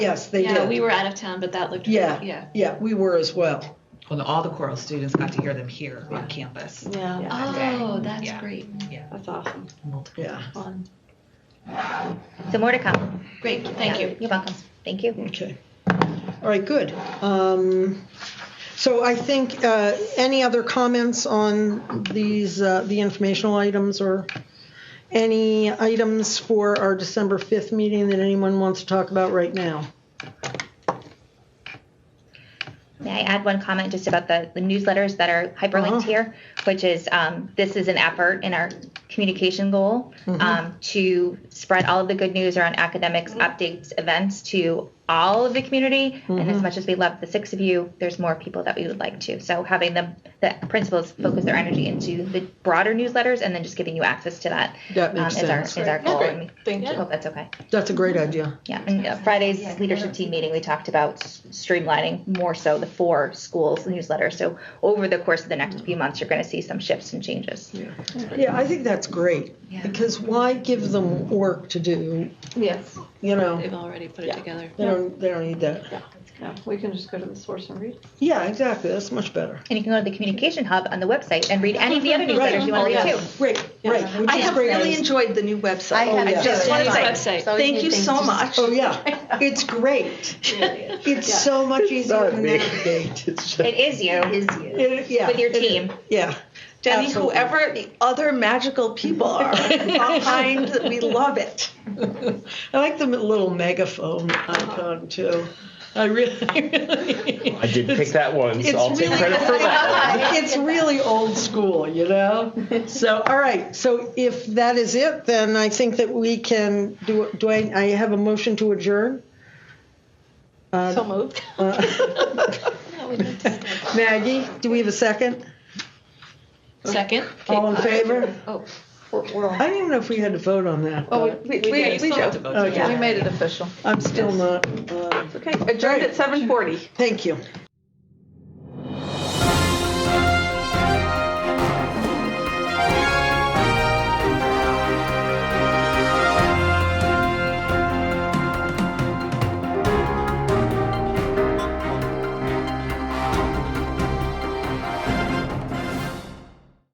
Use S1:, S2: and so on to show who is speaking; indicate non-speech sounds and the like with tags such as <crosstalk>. S1: Yes, they
S2: Yeah,
S1: did.
S2: we were out of town, but that looked,
S1: Yeah.
S2: yeah.
S1: Yeah, we were as well.
S3: Well, all the choral students got to hear them here on campus.
S4: Yeah,
S2: Oh, that's
S3: Yeah.
S2: great.
S4: that's awesome.
S3: Multiple.
S1: Yeah.
S4: Fun.
S5: So more to come.
S2: Great, thank
S5: Yeah,
S2: you.
S5: You're welcome. Thank you.
S1: Okay. All right, good. Um, so I think, uh, any other comments on these, uh, the informational items or any items for our December 5th meeting that anyone wants to talk about right now?
S5: May I add one comment just about the, the newsletters that are hyperlinked
S1: Uh-huh.
S5: here, which is um, this is an effort in our communication goal
S1: Mm-hmm.
S5: um, to spread all of the good news around academics, updates, events to all of the community. And
S1: Mm-hmm.
S5: as much as we love the six of you, there's more people that we would like to. So having the, the principals focus their energy into the broader newsletters and then just giving you access to that
S1: That
S5: um,
S1: makes
S5: is, our,
S1: sense.
S5: is our
S4: Yeah,
S5: goal.
S4: great.
S5: And
S4: Thank
S5: we
S4: you.
S5: hope that's okay.
S1: That's a great idea.
S5: Yeah, and uh, Friday's leadership team meeting, we talked about s- streamlining more so the four schools newsletter. So over the course of the next few months, you're going to see some shifts and changes.
S1: Yeah, I think that's great.
S5: Yeah.
S1: Because why give them work to do,
S4: Yes.
S1: you know?
S2: They've already put it
S4: Yeah.
S2: together.
S1: They don't, they don't need that.
S4: Yeah, we can just go to the source and read.
S1: Yeah, exactly. That's much better.
S5: And you can go to the communication hub on the website and read any of the other newsletters you want to read too.
S1: Right, right. which
S6: I
S1: is
S6: have
S1: Oh, great.
S6: really enjoyed the new website.
S1: have yeah.
S6: just want to
S2: Yeah.
S6: say
S2: Website.
S6: thank you so much. <laughs>
S1: Oh, yeah. It's great. It's so much easier to
S7: <laughs>
S1: navigate. It's just-
S5: It is you
S1: It- yeah,
S5: with your
S1: it is.
S5: team.
S1: Yeah.
S6: Jenny,
S1: absolutely.
S6: whoever the other magical people
S1: <laughs>
S6: are behind, we love it.
S1: I like the little megaphone icon too. I really, really
S7: I
S1: <laughs>
S7: did pick that one, so
S1: it's
S7: I'll take
S1: really-
S7: credit for that.
S1: <laughs> it's really old school, you know? So, all right. So if that is it, then I think that we can do, do I, I have a motion to adjourn? Uh,
S4: So moved.
S1: <laughs> Maggie, do we have a second?
S2: Second?
S1: All in favor?
S2: Oh.
S4: We're, we're
S1: I
S4: on.
S1: don't even know if we had to vote on that.
S4: Oh, we, we, we, we, Oh,
S3: have to
S4: do.
S3: vote.
S1: Okay.
S4: we made it official.
S1: I'm still not, uh,
S4: Okay, adjourned at 7:40.
S1: thank you.